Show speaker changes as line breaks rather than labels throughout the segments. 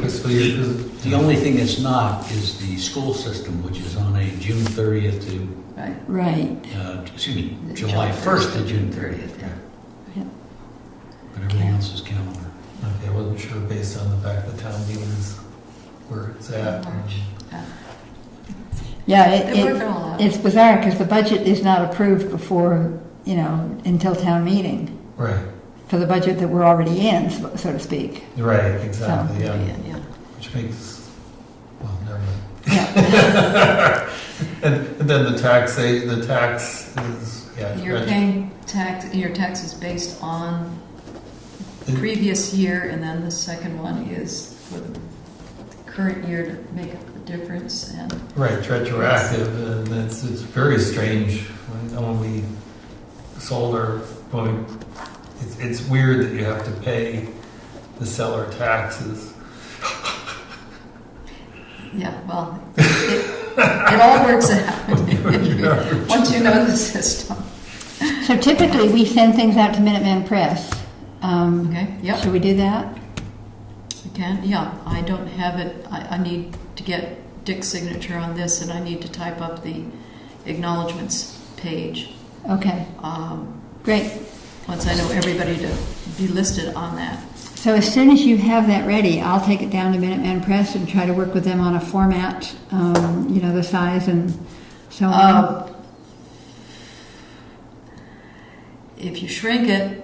fiscal year, 'cause the only thing that's not is the school system, which is on a June 30th to,
Right.
Right.
uh, excuse me,
The
July
July
1st to
1st.
June 30th, yeah.
Yep.
But everything else is calendar.
Okay, I wasn't sure based on the fact that town meeting is where it's at.
March.
Yeah,
It
it,
worked
it,
out.
it's bizarre because the budget is not approved before, you know, until town meeting
Right,
for the budget that we're already in, so so to speak.
right, exactly, yeah,
Yeah, yeah.
which makes, well, never mind.
Yeah,
And and then the tax, they- the tax is, yeah. it's
You're
right.
paying tax, your tax is based on the previous year, and then the second one is for the current year to make up the difference, and
Right, retroactive, and it's, it's very strange when only solar, when, it's, it's weird that you have to pay the seller taxes.
yeah, well, it, it all works out. Once you know the system,
so typically we send things out to Minuteman Press. Um,
Okay, yep.
Should we do that?
you can, yeah, I don't have it, I, I need to get Dick's signature on this, and I need to type up the acknowledgements page.
Okay,
Um,
great.
once I know everybody to be listed on that.
So as soon as you have that ready, I'll take it down to Minuteman Press and try to work with them on a format, um, you know, the size and so on.
Um, If you shrink it,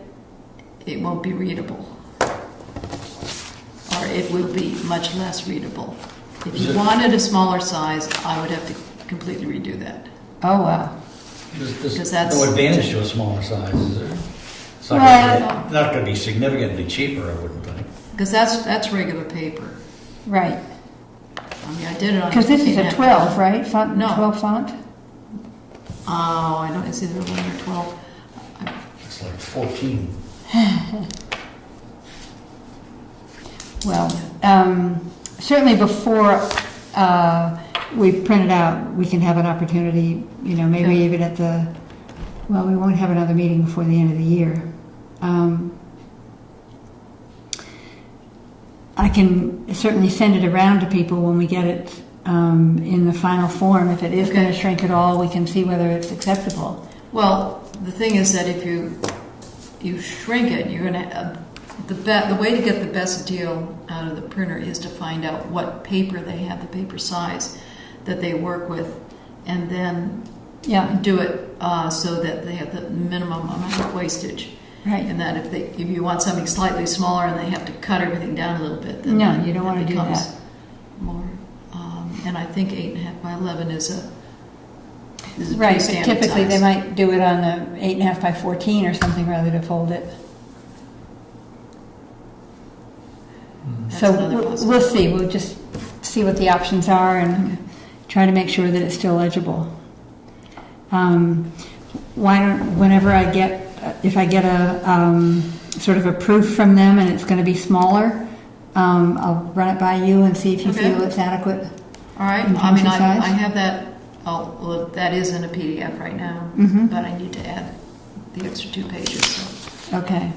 it won't be readable. Or it will be much less readable. If you wanted a smaller size, I would have to completely redo that.
oh wow.
There's- there's
Because that's-
No advantage to a smaller size, is there? It's not
Well-
gonna be- not going to be significantly cheaper, I wouldn't think.
Because that's, that's regular paper.
Right.
I mean, I did it on.
Because this is a
15.
12, right? Font,
No.
12 font?
Oh, I don't, it's either 11 or 12.
It's like 14.
Well, um, certainly before uh, we print it out, we can have an opportunity, you know, maybe
Yeah.
even at the, well, we won't have another meeting before the end of the year. Um, I can certainly send it around to people when we get it um, in the final form. If it is going to
Okay.
shrink at all, we can see whether it's acceptable.
Well, the thing is that if you, you shrink it, you're gonna, uh, the be, the way to get the best deal out of the printer is to find out what paper they have, the paper size that they work with, and then
Yeah,
do it, uh, so that they have the minimum amount of wastage.
right.
And that if they, if you want something slightly smaller and they have to cut everything down a little bit, then
No,
that-
you don't
that
wanna do
becomes
that.
More, um, and I think eight and a half by eleven is a, is a pretty
Right, but
standard
typically they
size.
might do it on the eight and a half by 14 or something rather to fold it.
Mm.
That's
So
another
we'll- we'll
possibility.
see, we'll just see what the options are and try to make sure that it's still legible. Um, Why don't, whenever I get, if I get a, um, sort of a proof from them and it's gonna be smaller, um, I'll run it by you and see if you
Okay.
feel it's adequate.
All right,
In
I mean,
terms of
I,
size?
I have that, oh, well, that is in a PDF right now,
Mhm.
but I need to add the extra two pages, so
Okay,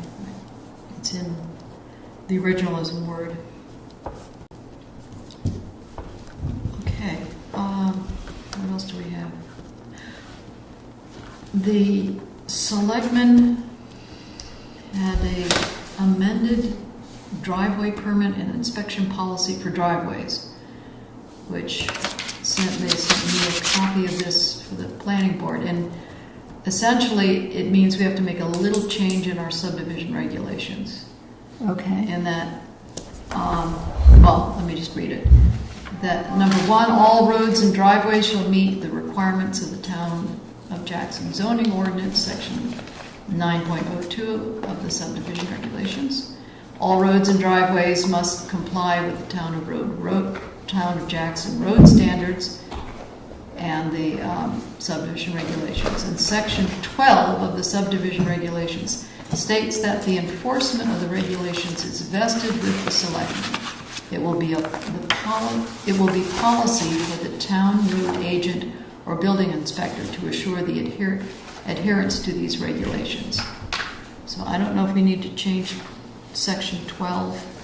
it's in, the original is in Word. Okay, um, what else do we have? The selectmen had a amended driveway permit and inspection policy for driveways, which sent, they sent me a copy of this for the planning board. And essentially, it means we have to make a little change in our subdivision regulations
okay.
in that, um, well, let me just read it. That, number one, all roads and driveways shall meet the requirements of the town of Jackson zoning ordinance, section 9.02 of the subdivision regulations. All roads and driveways must comply with the town of road, road, town of Jackson road standards and the um, subdivision regulations. And section 12 of the subdivision regulations states that the enforcement of the regulations is vested with the selectmen. It will be a, the poli, it will be policy for the town road agent or building inspector to assure the adher, adherence to these regulations. So I don't know if we need to change section 12